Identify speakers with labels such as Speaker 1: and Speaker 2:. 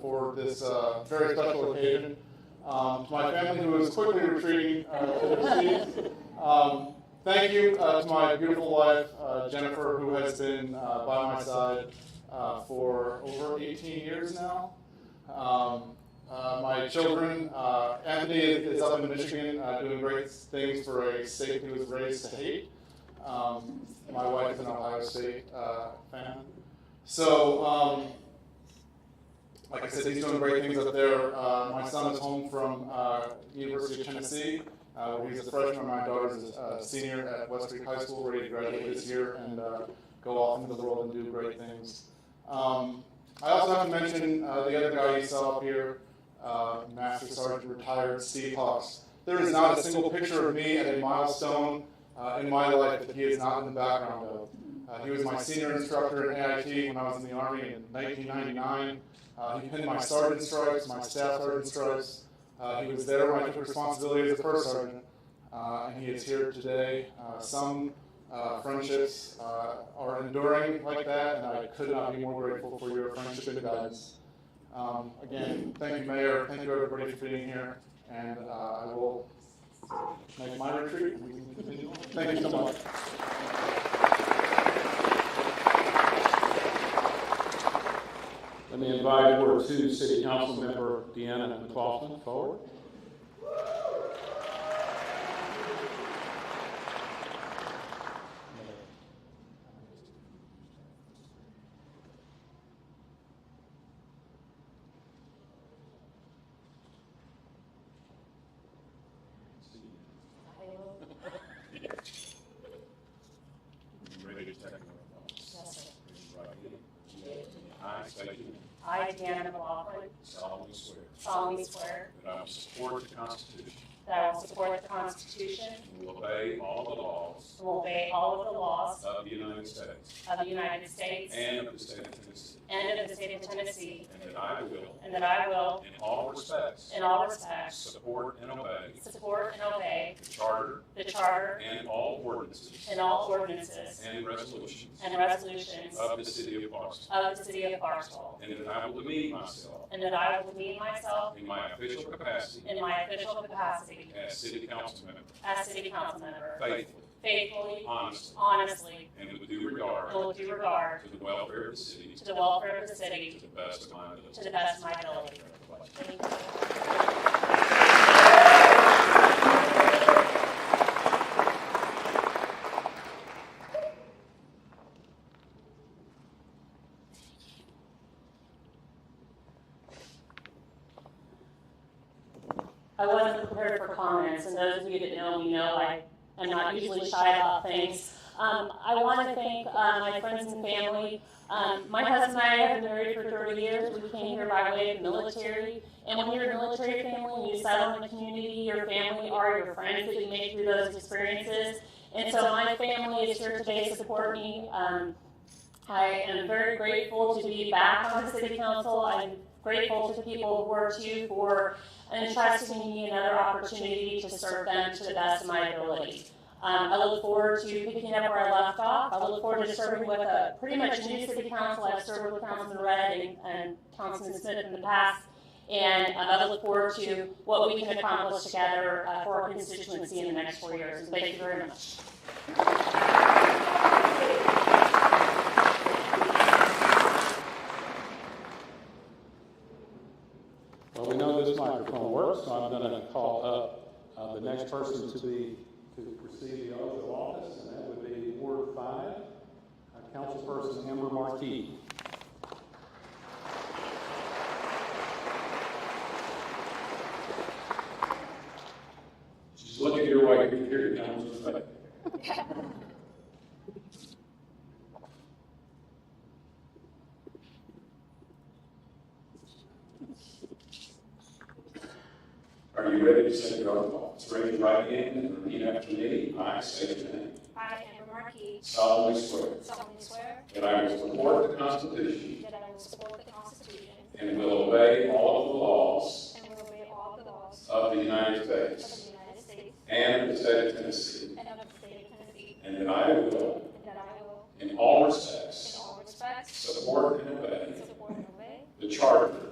Speaker 1: for this uh, very special occasion. Um, to my family who is quickly retreating uh, to their seats, um, thank you uh, to my beautiful wife, uh, Jennifer, who has been uh, by my side uh, for over 18 years now. Um, uh, my children, uh, Anthony is up in Michigan uh, doing great things for a state he was raised to hate. Um, my wife is an Ohio State uh, fan. So, um, like I said, he's doing great things up there. Uh, my son is home from uh, University of Tennessee, uh, where he's a freshman. My daughter is a senior at West Creek High School, ready to graduate this year and uh, go off into the world and do great things. Um, I also have to mention uh, the other guy you saw up here, uh, Master Sergeant retired Steve Hawks. There is not a single picture of me at a milestone uh, in my life that he is not in the background of. Uh, he was my senior instructor at AIT when I was in the Army in 1999. Uh, he pinned my sergeant stripes, my staff sergeant stripes. Uh, he was there when I took responsibility as a first sergeant, uh, and he is here today. Uh, some uh, friendships uh, are enduring like that, and I could not be more grateful for your friendship and guidance. Um, again, thank you, Mayor. Thank you, everybody, for being here, and uh, I will make my retreat. and we can continue. Thank you so much.
Speaker 2: Let me invite Ward Two City Council Member Deanna McLaughlin forward. Ready to take
Speaker 3: Yes,
Speaker 2: your right hand. I state your name.
Speaker 3: I, Dan McLaughlin,
Speaker 2: solemnly swear
Speaker 3: solemnly swear
Speaker 2: that I will support the Constitution
Speaker 3: that I will support the Constitution
Speaker 2: and will obey all the laws
Speaker 3: and will obey all of the laws
Speaker 2: of the United States
Speaker 3: of the United States
Speaker 2: and of the state of Tennessee,
Speaker 3: and of the state of Tennessee,
Speaker 2: and that I will,
Speaker 3: and that I will,
Speaker 2: in all respects,
Speaker 3: in all respects,
Speaker 2: support and obey
Speaker 3: support and obey
Speaker 2: the Charter
Speaker 3: the Charter
Speaker 2: and all ordinances
Speaker 3: and all ordinances
Speaker 2: and resolutions
Speaker 3: and resolutions
Speaker 2: of the city of Clarksville,
Speaker 3: of the city of Barstool,
Speaker 2: and that I will demean myself
Speaker 3: and that I will demean myself
Speaker 2: in my official capacity
Speaker 3: in my official capacity
Speaker 2: as city council member
Speaker 3: as city council member
Speaker 2: faithfully,
Speaker 3: faithfully,
Speaker 2: honestly,
Speaker 3: honestly,
Speaker 2: and with due regard
Speaker 3: and with due regard
Speaker 2: to the welfare of the city
Speaker 3: to the welfare of the
Speaker 2: to
Speaker 3: city
Speaker 2: the best of my ability.
Speaker 3: to the best of my ability.
Speaker 2: Congratulations.
Speaker 3: Thank you. I wasn't prepared for comments, and those of you that know me know I am not usually shy about things. Um, I want to thank uh, my friends and family. Um, my husband and I have been married for 30 years. We came here by way of military. And when you're a military family, you settle in the community, your family are your friends that you make through those experiences. And so my family is here today to support me. Um, I am very grateful to be back on the city council. I'm grateful to the people of Ward Two for entrusting me another opportunity to serve them to the best of my ability. Um, I look forward to picking up where I left off. I look forward to serving with a pretty much new city council. I've served with Councilman Red and, and Councilman Smith in the past. And um, I look forward to what we can accomplish together uh, for our constituency in the next four years. And thank you very much.
Speaker 2: Well, we know this microphone works, so I'm going to call up uh, the next person to be, to receive the oath of office, and that would be Ward Five, uh, Councilperson Amber Markey. She's looking your way, you hear it, Councilman. Are you ready to say your oath of office? Raise your right hand and repeat after me. I state your name.
Speaker 4: I, Amber Markey,
Speaker 2: solemnly swear
Speaker 4: solemnly swear
Speaker 2: that I will support the Constitution
Speaker 4: that I will support the Constitution
Speaker 2: and will obey all of the laws
Speaker 4: and will obey all the laws
Speaker 2: of the United
Speaker 4: of
Speaker 2: States
Speaker 4: the United States
Speaker 2: and of the state of Tennessee,
Speaker 4: and of the state of Tennessee,
Speaker 2: and that I will,
Speaker 4: and that I will,
Speaker 2: in all
Speaker 4: in
Speaker 2: respects,
Speaker 4: all respects,
Speaker 2: support and obey
Speaker 4: support and obey
Speaker 2: the Charter